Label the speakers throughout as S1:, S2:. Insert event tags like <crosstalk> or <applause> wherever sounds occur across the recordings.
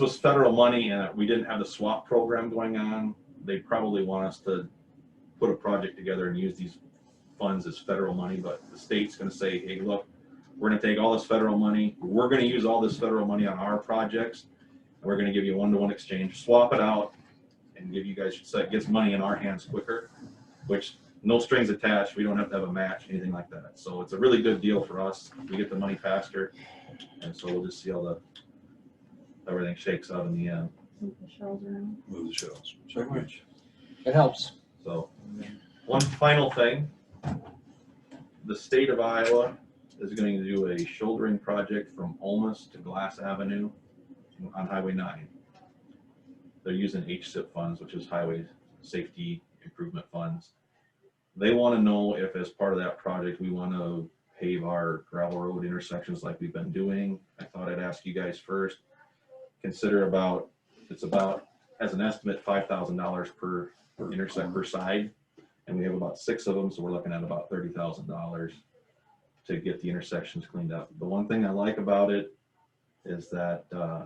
S1: was federal money and we didn't have the swap program going on, they probably want us to put a project together and use these funds as federal money, but the state's gonna say, hey, look, we're gonna take all this federal money, we're gonna use all this federal money on our projects, and we're gonna give you a one-to-one exchange, swap it out, and give you guys, so it gets money in our hands quicker, which, no strings attached, we don't have to have a match, anything like that. So it's a really good deal for us, we get the money faster, and so we'll just see how the, everything shakes out in the end,
S2: Move the shells around.
S3: Move the shells.
S4: It helps.
S1: so. One final thing, the state of Iowa is going to do a shouldering project from Olmus to Glass Avenue on Highway nine. They're using HSIP funds, which is Highway Safety Improvement Funds. They want to know if as part of that project, we want to pave our gravel road intersections like we've been doing. I thought I'd ask you guys first, consider about, it's about, as an estimate, five thousand dollars per intersect per side. And we have about six of them, so we're looking at about thirty thousand dollars to get the intersections cleaned up. The one thing I like about it is that uh,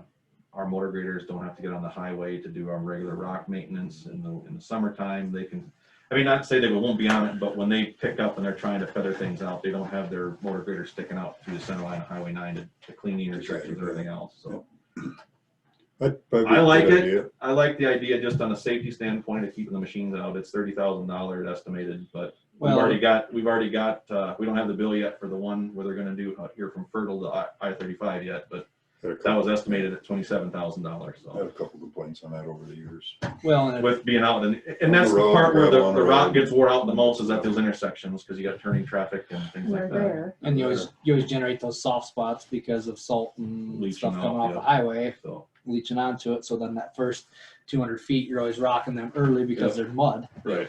S1: our motor graders don't have to get on the highway to do our regular rock maintenance in the, in the summertime. They can, I mean, not to say they won't be on it, but when they pick up and they're trying to feather things out, they don't have their motor grader sticking out through the center line of Highway nine to, to clean the intersections and everything else, so. I like it. I like the idea just on a safety standpoint of keeping the machines out. It's thirty thousand dollars estimated, but we've
S4: Well-
S1: already got, we've already got, uh, we don't have the bill yet for the one where they're gonna do out here from Fertile to I, I thirty-five yet, but that was estimated at twenty-seven thousand dollars,
S3: I had
S1: so.
S3: a couple complaints on that over the years.
S4: Well, and it-
S1: With being out and,
S3: On
S1: and that's
S3: the
S1: the
S3: road,
S1: part where
S3: gravel
S1: the,
S3: on
S1: the
S3: the
S1: rock
S3: road.
S1: gets wore out the most is at those intersections, cause you got turning traffic and things
S2: We're
S1: like that.
S2: there.
S4: and you always, you always generate those soft spots because of salt and
S1: Leaching
S4: stuff coming
S1: off,
S4: off the
S1: yeah.
S4: highway
S1: So,
S4: leaching onto it. So then that first two hundred feet, you're always rocking them early because they're mud.
S1: right.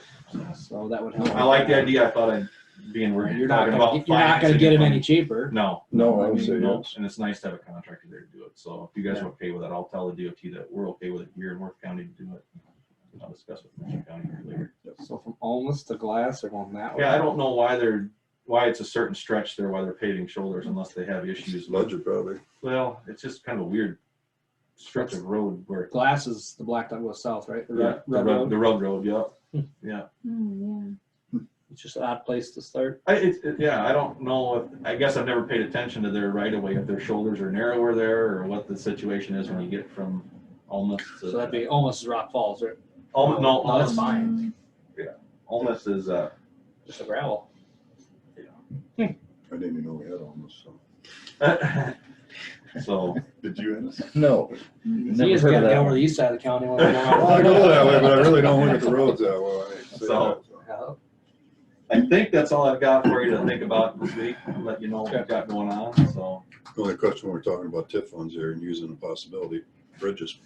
S4: So that would help.
S1: I like the idea. I thought I'd be in, we're
S4: You're not
S1: talking
S4: gonna,
S1: about.
S4: get- you're not gonna
S1: financing
S4: get them
S1: money.
S4: any cheaper.
S1: No.
S3: No,
S4: I would
S1: mean,
S3: say
S1: no,
S3: yes.
S1: And it's nice to have a contractor there to do it. So if you guys are okay with that, I'll tell the DOT that we're okay with it here in Worth County to do it. I'll discuss with Mercer County here later.
S4: So from almost to glass, they're going that way.
S1: Yeah, I don't know why they're, why it's a certain stretch there, why they're paving shoulders unless they have issues. with-
S3: Ledger probably.
S1: Well, it's just kind of a weird stretch of road where.
S4: Glass is the black dog goes south, right? The
S1: Yeah,
S4: red,
S1: The
S4: red
S1: rug,
S4: road.
S1: the rug road, yeah, yeah.
S2: Mm,
S4: It's just an odd place to start.
S1: I, it, it- yeah, I don't know, if- I guess I've never paid attention to their right of way, if their shoulders are narrower there, or what the situation is when you get from almost
S4: So that'd
S1: to.
S4: be almost as Rock Falls, right?
S1: Almost, no,
S4: No,
S1: almost,
S4: that's
S2: yeah.
S4: fine.
S2: Mm,
S1: almost is, uh,
S4: Just a gravel.
S3: I didn't even know we had almost, so.
S1: <laughs> so,
S3: Did you, Ennis?
S5: No.
S4: He has
S5: heard
S4: gotta
S5: of
S4: get
S5: that
S4: over
S5: one.
S4: the east side of
S1: <laughs>
S4: the county. when
S3: <laughs> Well, I go that way,
S4: we're-
S3: but I really don't look at the roads that well. I say that,
S1: So-
S3: so.
S4: Yeah.
S1: I think that's all I've got for you to think about this week, and let you know what I've got going on, so,
S3: The Only question, we're talking about TIF funds here and using the possibility, bridges.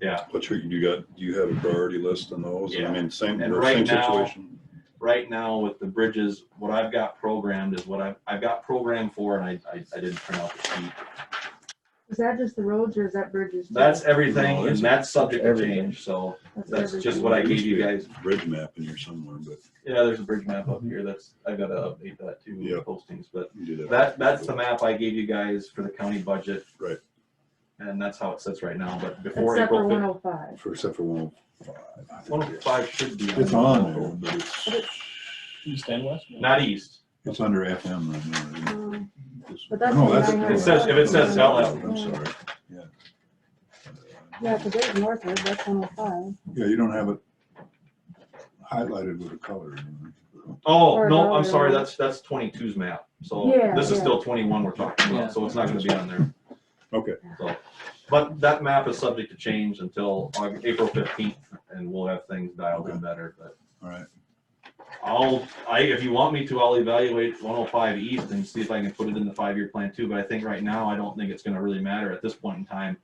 S1: Yeah.
S3: What's your, you got, do you have a priority list on those? I
S1: Yeah.
S3: mean, same,
S1: And
S3: we're
S1: right
S3: same
S1: now-
S3: situation.
S1: right now with the bridges, what I've got programmed is what I've, I've got programmed for, and I, I, I didn't print out the sheet.
S2: Is that just the roads or is that bridges? too?
S1: That's everything, and that's subject to
S5: Everything.
S1: change, so that's just
S2: everything.
S1: what I gave you guys.
S3: Bridge map in here somewhere, but
S1: Yeah, there's a bridge map up here, that's, I gotta update that too, with
S3: Mm-hmm. Yeah.
S1: postings, but
S3: you do that.
S1: that, that's the map I gave you guys for the county budget.
S3: Right.
S1: And that's how it sits right now, but before
S2: Except for
S1: April
S2: one
S1: fifth,
S2: oh five.
S3: For- Except for one.
S1: one oh five should be.
S3: It's on there, but it's,
S5: East and west?
S1: Not east,
S3: it's under FM right now. isn't it?
S2: Um,
S3: This-
S2: But that's
S3: No,
S2: what I
S3: that's-
S2: have.
S1: It says- if it says LF.
S3: I'm sorry, yeah.
S2: Yeah, because there's Northwood, that's one oh
S3: Yeah, you don't have it highlighted with a color. you
S1: oh,
S2: Or
S1: no, I'm
S2: no,
S1: sorry,
S2: no.
S1: that's, that's 22's map, so
S2: Yeah,
S1: this is
S2: yeah.
S1: still twenty-one we're talking
S4: Yeah.
S1: about, so it's not gonna be on there.
S3: Okay.
S1: So, but that map is subject to change until Aug- April fifteenth, and we'll have things dialed in better, but
S3: know? All right,
S1: I'll, I, if you want me to, I'll evaluate one oh five east and see if I can put it in the five-year plan too, but I think right now, I don't think it's gonna really matter at this point in time.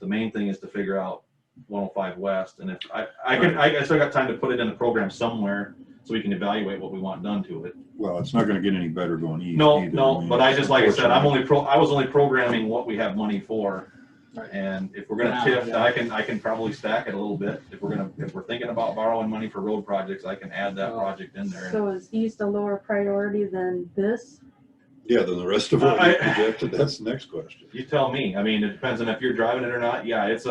S1: The main thing is to figure out one oh five west, and if, I, I can, I, I still got time to put it in the program somewhere, so we can evaluate what we want done to it.
S3: well, it's not gonna get any better going east.
S1: No,
S3: either,
S1: no,
S3: mean,
S1: but I just, like I said, I'm
S3: unfortunately.
S1: only pro, I was only programming what we have money for.
S4: Right.
S1: And if we're gonna
S4: Now,
S1: TIF,
S4: yeah.
S1: I can, I can probably stack it a little bit, if we're gonna, if we're thinking about borrowing money for road projects, I can add that
S4: Oh.
S1: project in there.
S2: five. So is east a lower priority than this?
S3: Yeah, then the rest of what
S1: I-
S3: you projected, that's the next question.
S1: You tell me. I mean, it depends on if you're driving it or not. Yeah, it's a,